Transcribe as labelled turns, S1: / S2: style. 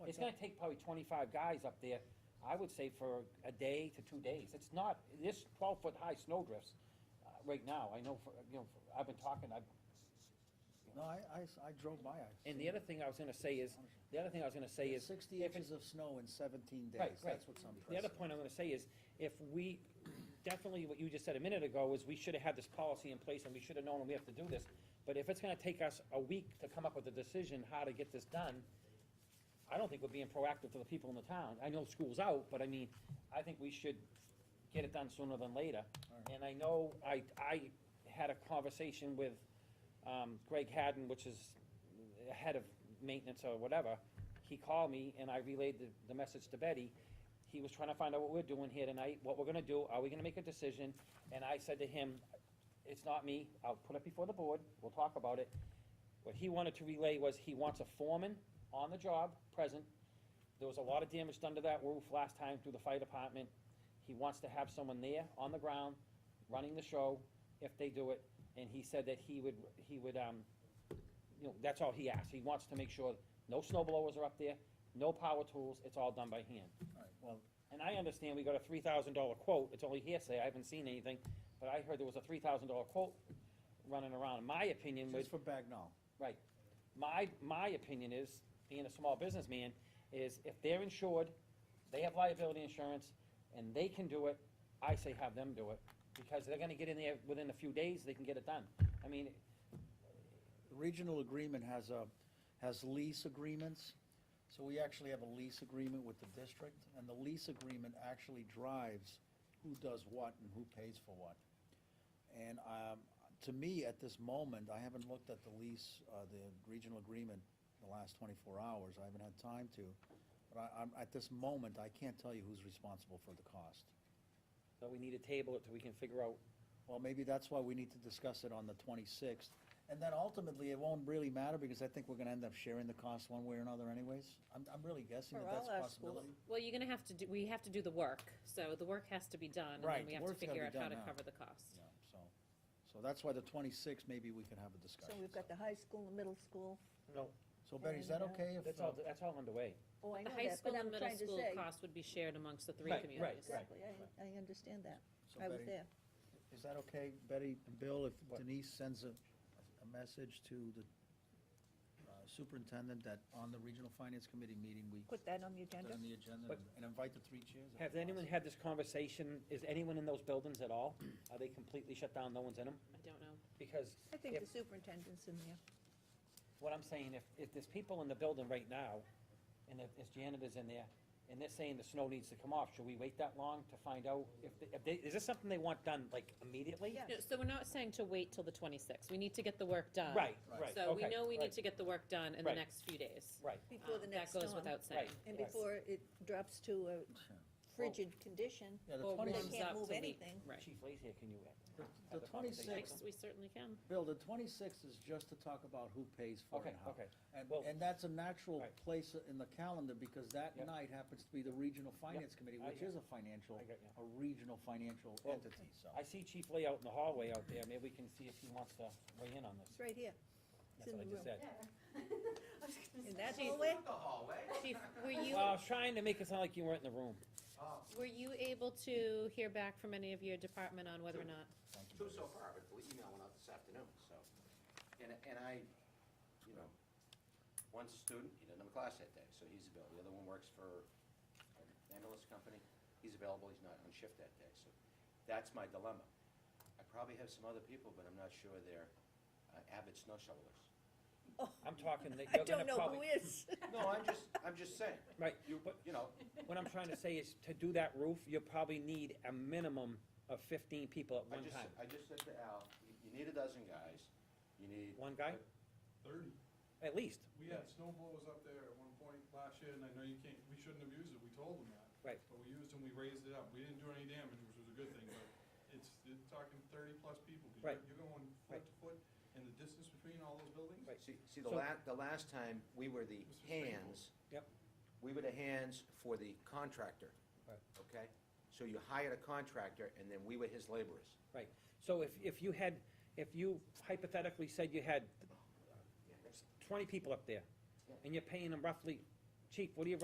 S1: it's gonna take probably twenty-five guys up there, I would say for a day to two days. It's not, this twelve-foot-high snowdrifts, uh, right now, I know, for you know, for- I've been talking, I've,
S2: No, I, I s- I drove by, I.
S1: and the other thing I was gonna say is, the other thing I was gonna say is,
S2: Sixty
S1: if it-
S2: inches of snow in seventeen
S1: Right,
S2: days,
S1: right.
S2: that's what's impressive.
S1: the other point I'm gonna say is, if we, definitely what you just said a minute ago is, we should have had this policy in place and we should have known we have to do this. But if it's gonna take us a week to come up with a decision how to get this done, I don't think we're being proactive to the people in the town. I know school's out, but I mean, I think we should get it done sooner than later.
S2: Alright.
S1: And I know, I, I had a conversation with, um, Greg Hadden, which is the head of maintenance or whatever. He called me and I relayed the, the message to Betty. He was trying to find out what we're doing here tonight, what we're gonna do, are we gonna make a decision? And I said to him, it's not me, I'll put it before the board, we'll talk about it. What he wanted to relay was he wants a foreman on the job, present. There was a lot of damage done to that roof last time through the fire department. He wants to have someone there on the ground, running the show, if they do it. And he said that he would, he would, um, you know, that's all he asked. He wants to make sure no snow blowers are up there, no power tools, it's all done by hand.
S2: All right, Well,
S1: And I understand we got a three thousand dollar quote, it's only hearsay, I haven't seen anything, but I heard there was a three thousand dollar quote running around. My opinion was,
S2: just for Bagnall,
S1: Right. My, my opinion is, being a small businessman, is if they're insured, they have liability insurance, and they can do it, I say have them do it, because they're gonna get in there within a few days, they can get it done. I mean,
S2: the regional agreement has a, has lease agreements. So we actually have a lease agreement with the district, and the lease agreement actually drives who does what and who pays for what. And, um, to me, at this moment, I haven't looked at the lease, uh, the regional agreement in the last twenty-four hours, I haven't had time to. But I, I'm, at this moment, I can't tell you who's responsible for the cost.
S1: so we need to table it till we can figure out,
S2: Well, maybe that's why we need to discuss it on the twenty-sixth. And then ultimately, it won't really matter because I think we're gonna end up sharing the cost one way or another anyways. I'm, I'm really guessing
S3: For
S2: that that's
S3: all
S2: a
S3: our schools.
S2: possibility.
S4: Well, you're gonna have to do, we have to do the work, so the work has to be done, and
S2: Right,
S4: then
S2: the
S4: we have to
S2: work's gotta
S4: figure
S2: be
S4: out how
S2: done
S4: to
S2: now.
S4: cover the cost.
S2: Yeah, So, so that's why the twenty-sixth, maybe we can have a
S3: So
S2: discussion.
S3: we've got the high school, the middle school.
S1: no,
S2: So Betty, is that okay if?
S1: that's all,
S2: uh,
S1: that's all underway.
S3: Oh, I
S4: The
S3: know
S4: high
S3: that,
S4: school
S3: but I'm
S4: and middle
S3: trying to
S4: school
S3: say.
S4: cost would be shared amongst the three
S1: Right, right,
S4: communities.
S1: right.
S3: Exactly, I, I understand that.
S2: so
S3: I was
S2: Betty,
S3: there.
S2: Is that okay, Betty and Bill, if
S1: What?
S2: Denise sends a, a message to the uh, superintendent that on the regional finance committee meeting, we put
S3: Put that on the agenda.
S2: that on the agenda
S1: But-
S2: and- and invite the three chairs? if
S1: Have anyone
S2: possible.
S1: had this conversation, is anyone in those buildings at all? Are they completely shut down, no one's in them?
S4: I don't know.
S1: Because
S3: I think
S1: if-
S3: the superintendent's in there.
S1: What I'm saying, if, if there's people in the building right now, and if there's janitors in there, and they're saying the snow needs to come off, should we wait that long to find out if, they- if they, is this something they want done, like, immediately?
S3: Yeah.
S4: No, So we're not saying to wait till the twenty-sixth, we need to get the work done.
S1: Right,
S2: Right.
S1: right,
S4: So we
S1: okay,
S4: know we need
S1: right,
S4: to get the work done in
S1: Right.
S4: the next few days.
S1: Right,
S3: Before
S4: Um,
S3: the next
S4: That goes
S3: storm.
S4: without saying.
S1: Right.
S3: And
S1: Right.
S3: before it drops to a frigid condition,
S2: Yeah, the
S1: Oh,
S4: Or
S2: 20
S4: warms
S3: can't
S4: up
S3: move
S4: to we-
S3: anything.
S4: Right.
S1: Chief Lay's here, can you?
S2: The-
S1: have
S2: The
S1: a conversation?
S2: twenty-sixth,
S4: We certainly can.
S2: Bill, the twenty-sixth is just to talk about who pays for it
S1: Okay,
S2: and how.
S1: okay,
S2: And,
S1: well-
S2: and that's a natural
S1: Right.
S2: place in the calendar, because that
S1: Yep.
S2: night happens to be the regional finance committee,
S1: I
S2: which
S1: got
S2: is a financial,
S1: I got you.
S2: a regional financial
S1: Well,
S2: entity, so.
S1: I see Chief Lay out in the hallway out there, maybe we can see if he wants to weigh in on this.
S3: it's right here. It's
S1: That's
S3: in
S1: what
S3: the
S1: I just
S3: room.
S1: said.
S3: In that
S4: Jeez.
S3: hallway?
S5: The hallway?
S4: Chief, were you,
S1: Well, uh, I was trying to make it sound like you weren't in the room.
S5: Oh,
S4: were you able to hear back from any of your department on whether or not?
S2: Thank you,
S5: Two
S2: Bill.
S5: so far, but the email went out this afternoon, so. And, and I, you know, one's a student, he doesn't have a class that day, so he's available. The other one works for an ambulance company, he's available, he's not on shift that day, so that's my dilemma. I probably have some other people, but I'm not sure they're uh, avid snow shovelers.
S1: I'm talking that
S3: Oh, I
S1: you're gonna
S3: don't know
S1: probably.
S3: who is.
S5: No, I'm just, I'm just saying,
S1: Right,
S5: you,
S1: but
S5: you know,
S1: What I'm trying to say is, to do that roof, you probably need a minimum of fifteen people at
S5: I
S1: one
S5: just,
S1: time.
S5: I just said to Al, you- you need a dozen guys, you need.
S1: One guy,
S6: Thirty.
S1: at least,
S6: We had snow blowers up there at one point last year, and I know you can't, we shouldn't have used it, we told them that.
S1: Right.
S6: But we used them, we raised it up, we didn't do any damage, which was a good thing, but it's, you're talking thirty-plus people. 'cause
S1: Right.
S6: You're you're going
S1: Right.
S6: foot to foot, and the distance between all those buildings?
S1: Right.
S5: See, see, the
S1: So-
S5: la, the last time, we were the
S6: Mr. Springle.
S5: hands.
S1: Yep.
S5: We were the hands for the contractor.
S1: Right.
S5: Okay? So you hired a contractor, and then we were his laborers.
S1: So if, if you had, if you hypothetically said you had twenty people up there, and you're paying them roughly, chief, what do you